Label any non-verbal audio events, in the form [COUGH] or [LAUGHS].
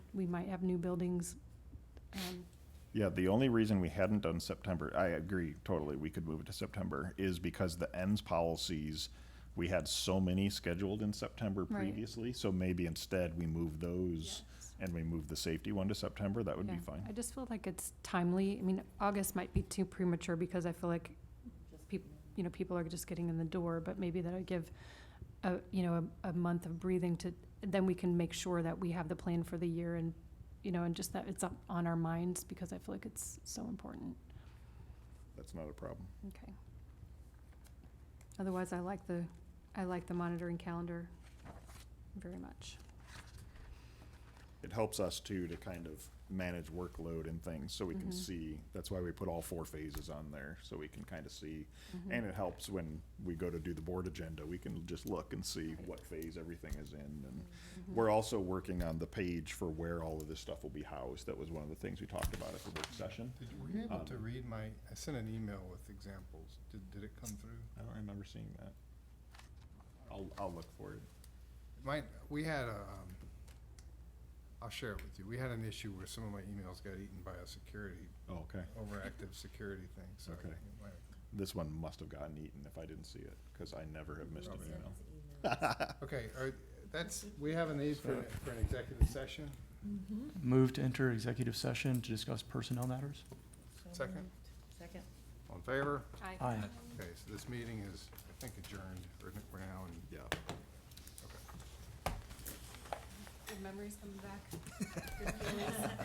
we might have new buildings. um, Yeah, the only reason we hadn't done September, I agree totally, we could move it to September, is because the ends policies, we had so many scheduled in September Right. previously, so maybe instead we move those and we move the safety one to September, that would be yeah. fine. I just feel like it's timely. I mean, August might be too premature because I feel like people, you know, people are just getting in the door, but maybe that would give a, you know, a, a month of breathing to, then we can make sure that we have the plan for the year and, you know, and just that it's up on our minds because I feel like it's so important. That's not a problem. Okay. Otherwise, I like the, I like the monitoring calendar very much. It helps us too to kind of manage workload and things, so we can Mhm. see, that's why we put all four phases on there, so we can kind of see. And it helps when we go to do the board agenda, we can just look and see what phase everything is in and We're also working on the page for where all of this stuff will be housed. That was one of the things we talked about at the work session. Did, were you able to Um, read my, I sent an email with examples. Did, did it come through? I don't remember seeing that. I'll, I'll look for it. Mine, we had a, um, I'll share it with you. We had an issue where some of my emails got eaten by a security, Okay. [LAUGHS] overactive security thing, so. Okay. it might- This one must have gotten eaten if I didn't see it, because I never have missed an Probably. email. Okay, are, that's, we have a need for, an- for an executive session? Move to enter executive session to discuss personnel matters? Second? Second. All in favor? Mm-hmm. Aye. Okay, so this meeting is, I think adjourned, or we're now in. Yeah. Okay. [LAUGHS] Good memories coming back.